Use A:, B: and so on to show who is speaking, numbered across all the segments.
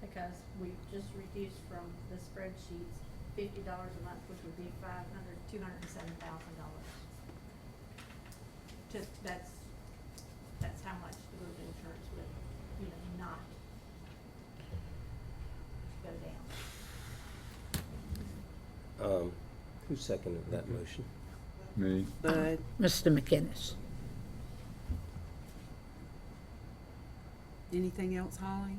A: because we just reduced from the spreadsheets fifty dollars a month, which would be five hundred, two hundred and seven thousand dollars. Just, that's, that's how much the group insurance would, you know, not go down.
B: Um, Who seconded that motion?
C: Me,
D: Uh,
E: Mr. McInnes.
D: Anything else, Holly?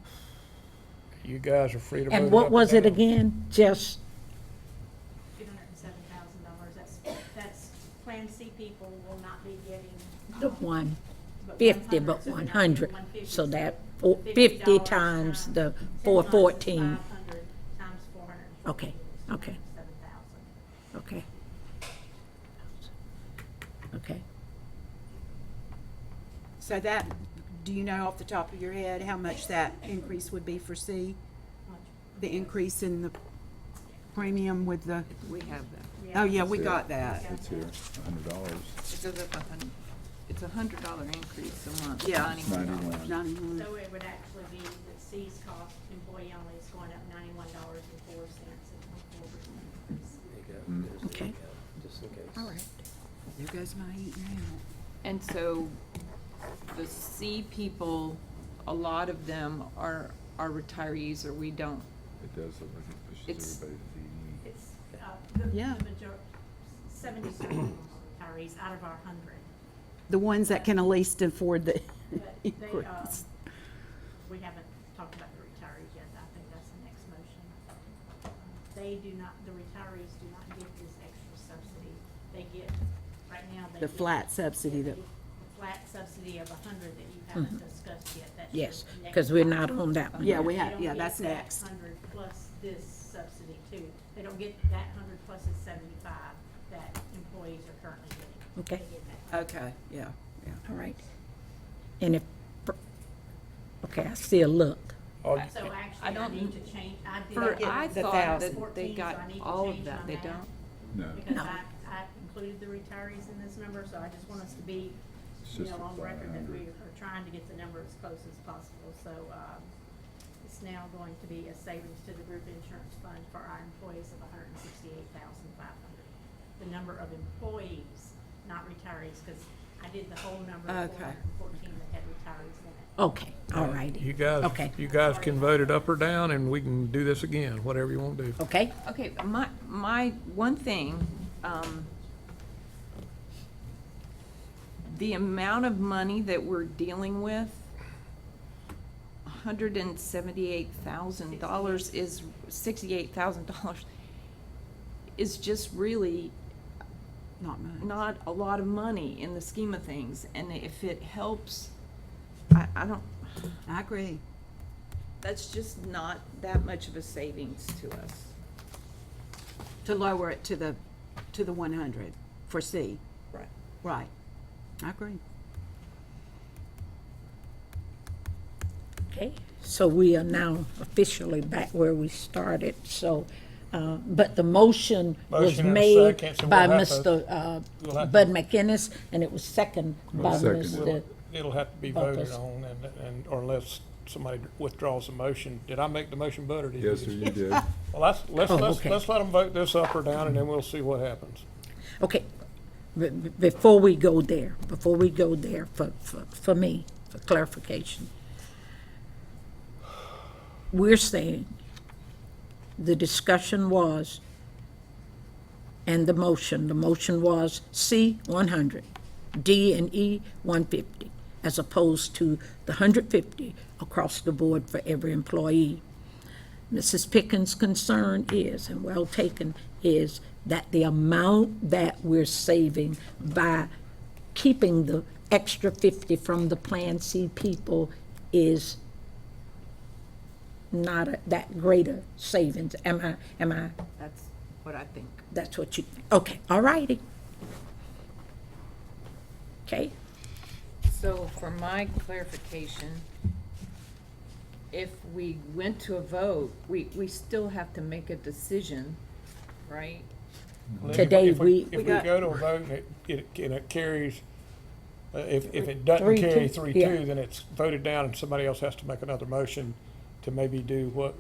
F: You guys are free to vote.
E: And
F: up
E: what was it
F: down.
E: again? Just,
A: two hundred and seven thousand dollars, that's, that's, Plan C people will not be getting.
E: the
A: um,
E: one
A: but
E: fifty,
A: 100,
E: but
A: so they're
E: one
A: not getting
E: hundred,
A: 150,
E: so
A: so
E: that four- fifty
A: $50
E: times the
A: ten
E: four
A: times 500
E: fourteen,
A: times four hundred and
E: Okay,
A: fifty is
E: okay.
A: 207,000.
E: okay. Okay,
D: So that, do you know off the top of your head how much that increase would be for C?
A: Much.
D: The increase in the premium with the,
G: We have that.
D: oh yeah, we
C: Yeah.
D: got that.
C: it's here, a hundred dollars,
G: It goes up a hun, it's a hundred dollar increase a month,
D: Yeah.
G: ninety-one dollars.
C: ninety-one.
D: Ninety-one.
A: So it would actually be that C's cost, employee only is going up ninety-one dollars and four cents and one quarter.
B: There you go.
C: Mm.
B: There's the
E: Okay.
B: recount, Just in case.
E: all right.
D: There goes my eating out.
G: And so the C people, a lot of them are, are retirees or we don't,
C: It does, look like it
G: It's-
C: pushes everybody's eating.
A: It's, uh, the,
D: Yeah.
A: the major, seventy-seven retirees out of our hundred.
D: The ones that can at least afford the
A: But they, uh,
D: increase.
A: we haven't talked about the retirees yet, I think that's the next motion. They do not, the retirees do not get this extra subsidy, they get, right now, they
D: The
A: get
D: flat subsidy that,
A: the Flat subsidy of a hundred that you haven't discussed yet, that's.
E: Mm-hmm. Yes,
A: the next
E: because we're
A: one.
E: not on that one.
D: yeah,
E: yet.
D: we
A: They
D: have,
A: don't
D: yeah,
A: get
D: that's
A: that
D: next.
A: Hundred plus this subsidy too, they don't get that hundred plus the seventy-five that employees are currently getting.
E: Okay.
A: They get that.
D: Okay, yeah, yeah.
E: All right. And if, okay, I see a look.
F: Oh,
A: So
G: I
A: actually, I
G: don't-
A: need to change, I did.
G: for,
D: get
G: I
D: the
G: thought
D: thousand.
G: that they
A: 14, so
G: got
A: I need to
G: all of
A: change
G: that,
A: my
G: they
A: math.
G: don't?
C: No,
A: Because
E: No.
A: I, I included the retirees in this number, so I just want us to be,
C: It's
A: you
C: just
A: know,
C: a
A: on
C: flat
A: record that we
C: hundred.
A: are trying to get the number as close as possible. So, um, it's now going to be a savings to the group insurance fund for our employees of hundred and sixty-eight thousand five hundred. The number of employees, not retirees, because I did the whole number of four
D: Okay.
A: hundred and fourteen that had retirees in it.
E: Okay, all
F: You
E: righty.
F: guys,
E: Okay.
F: you guys can vote it up or down, and we can do this again, whatever you want to do.
E: Okay,
G: Okay, my, my one thing, um, the amount of money that we're dealing with, hundred and seventy-eight thousand dollars is, sixty-eight thousand dollars is just really
D: Not much.
G: not a lot of money in the scheme of things. And if it helps, I, I don't,
D: I agree.
G: that's just not that much of a savings to us.
D: To lower it to the, to the one hundred for C.
G: Right.
D: Right. I agree.
E: okay. So we are now officially back where we started, so, uh, but the motion was
F: Motion and a
E: made
F: second, so
E: by
F: we'll have to-
E: Mr. uh,
F: we'll have to-
E: Bud McInnes, and it was second by
C: We'll second it.
E: Mr.
F: It'll have to be
E: Bumpus.
F: voted on, and, and, or unless somebody withdraws the motion. Did I make the motion, Bud, or did you?
C: Yes, sir, you did.
F: Well, let's, let's,
E: Oh,
F: let's,
E: okay.
F: let's let them vote this up or down, and then we'll see what happens.
E: Okay, b- b- before we go there, before we go there, for, for, for me, for clarification. We're saying, the discussion was, and the motion, the motion was C, one hundred, D and E, one fifty, as opposed to the hundred fifty across the board for every employee. Mrs. Pickens' concern is, and well taken, is that the amount that we're saving by keeping the extra fifty from the Plan C people is not a- that greater savings. Am I, am I,
G: That's what I think.
E: that's what you, okay, all righty. Okay,
G: So for my clarification, if we went to a vote, we, we still have to make a decision, right?
C: Mm-hmm.
F: If-
E: Today,
F: if
E: we-
F: If
E: We
F: we
E: got-
F: go to a vote, and it, it, and it carries, uh, if, if it doesn't
E: Three,
F: carry
E: two,
F: three
E: yeah.
F: two, then it's voted down, and somebody else has to make another motion to maybe do what